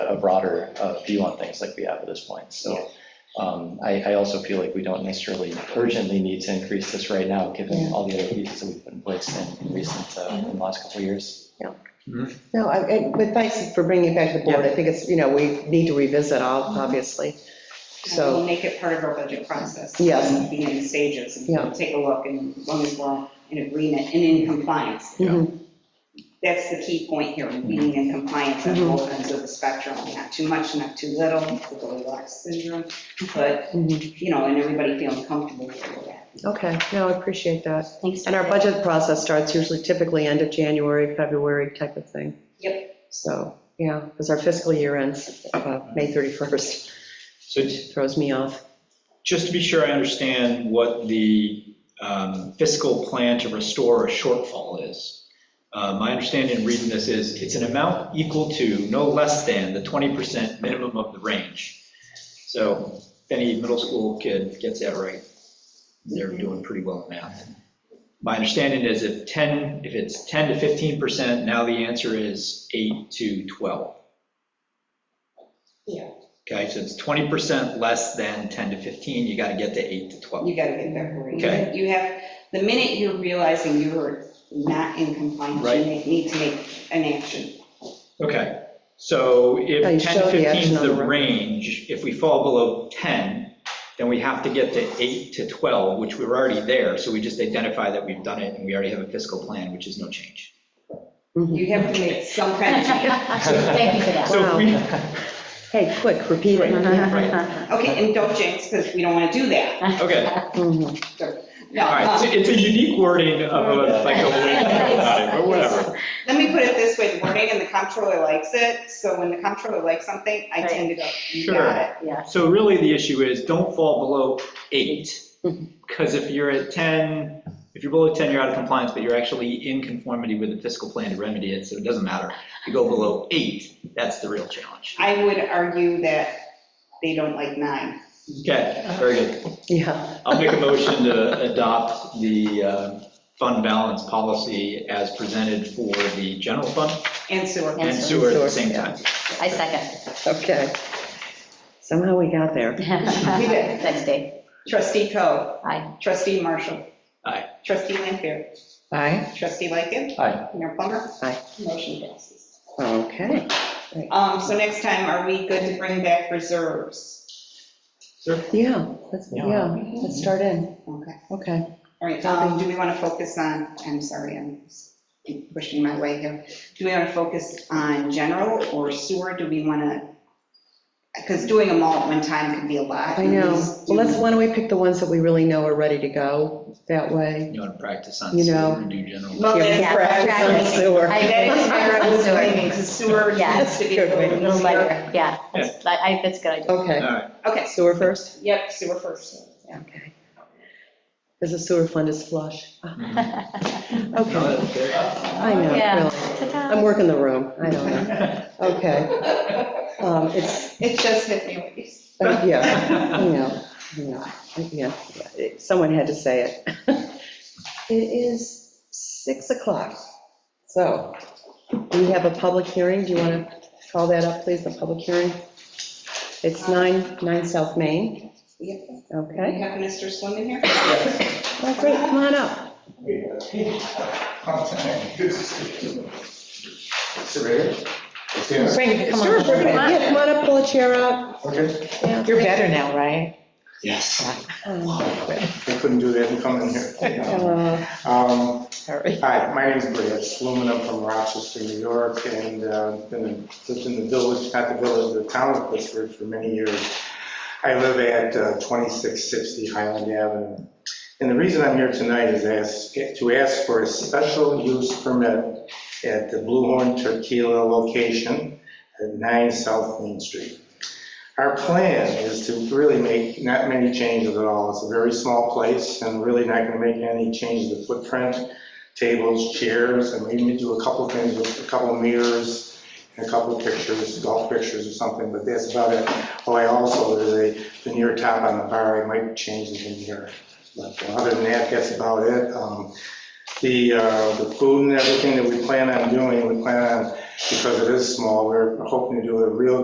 a broader uh, view on things like we have at this point. So um, I, I also feel like we don't necessarily urgently need to increase this right now, given Yeah. all the other pieces that we've put in place in in recent, uh, in the last couple of years. No, I- and, but thanks for bringing it back to the board. I think it's, you know, we need to revisit all, obviously. And We'll So, make it part of our budget process. Yes. It'll Be in stages, and Yeah. we'll take a look, and as long as we're in agreement and in compliance. mhm, That's the key point here, being in compliance on Mhm. both ends of the spectrum, not too much, not too little, the Goldilocks syndrome, but, mhm. you know, and everybody feeling comfortable with that. okay, no, I appreciate that. Thanks. And our budget process starts usually typically end of January, February type of thing. Yep. So, yeah, because our fiscal year ends uh, May 31st, So which throws me off. just to be sure I understand what the um, fiscal plan to restore a shortfall is. Uh, My understanding in reading this is it's an amount equal to no less than the 20% minimum of the range. So if any middle school kid gets that right, they're doing pretty well in math. My understanding is if 10, if it's 10 to 15%, now the answer is 8 to 12. Yeah. Okay, so it's 20% less than 10 to 15, you got to get to 8 to 12. You gotta get there, Cory. Okay. You have, the minute you're realizing you're not in compliance, you Right. may- need to make an action. Okay, so if Yeah, you 10 to show the 15 action is on the the right. range, if we fall below 10, then we have to get to 8 to 12, which we're already there, so we just identify that we've done it, and we already have a fiscal plan, which is no change. Mhm. You have to make some kind of change. Thank you for that. So if we, Hey, quick, repeat it. Okay, and don't jinx, because we don't want to do that. okay, Mhm. No, all right, so um, it's a unique wording of a, like, a way to think about it, but whatever. let me put it this way, the wording and the comptroller likes it, so when the comptroller likes something, I tend to go, you got it. Yes. So really, the issue is, don't fall below 8, because if you're at 10, if you're below 10, you're out of compliance, but you're actually in conformity with the fiscal plan to remedy it, so it doesn't matter. If you go below 8, that's the real challenge. I would argue that they don't like nine. Okay, very good. Yeah, I'll make a motion to adopt the uh, fund balance policy as presented for the general fund And sewer. and Yes. sewer at the same time. I second. okay. Somehow we got there. did. Thanks, Dave. Trustee Coe, Aye. trustee Marshall. Aye. Trustee Lanfair, Aye, trustee Lightgev, Hi, Mayor Plummer. Aye. Motion passes. okay. Um, so next time, are we good to bring back reserves? Sir? Yeah, let's, yeah, let's start in. Okay. Okay. All right, um, do we want to focus on, I'm sorry, I'm pushing my way here. Do we want to focus on general or sewer? Do we want to? Because doing them all at one time could be a lot. I know. Well, let's, why don't we pick the ones that we really know are ready to go that way? You want to practice on You sewer know. and do general? Well, that's Oh, Yeah, correct. exactly. Sewer. I agree. That is where I was Sewer. going, because sewer Yeah. needs to be That's a a good A little little easier. lighter, yeah. That's, I, I- that's a good idea. All Okay, right, Okay, sewer first? yep, sewer first. Yeah. Okay. Because the sewer fund is flush. Okay, No, that's I know, Yeah. really. I'm working the room, I don't know. good. Okay, um, it's, It just hit me. when you said- uh, yeah, you know, you know, yeah, it- someone had to say it. It is six o'clock, so we have a public hearing, do you want to call that up, please, the public hearing? It's nine, nine South Main, Yep. We okay? have Mr. Swim in here? Well, great, come on up. Frank, come Sure, on. bring it, yeah, come on up, pull a chair out. Okay, Yeah. You're better now, right? Um, I couldn't do that and come in here. uh, Um, Sorry. Hi, my name is Brad Sluman, I'm from Rochester, New York, and uh, been, lived in the village, not the village, the town of Pittsburgh for many years. I live at uh, 2660 Highland Avenue. And the reason I'm here tonight is ask- to ask for a special use permit at the Blue Horn Tequila location at 9 South Main Street. Our plan is to really make not many changes at all. It's a very small place and really not going to make any changes to footprint tables, chairs, and maybe do a couple things with a couple mirrors and a couple pictures, golf pictures or something, but that's about it. Oh, I also, there's a veneer top on the bar, I might change the veneer. But other than that, that's about it. Um, The, uh, the food and everything that we plan on doing, we plan on, because it is small, we're hoping to do a real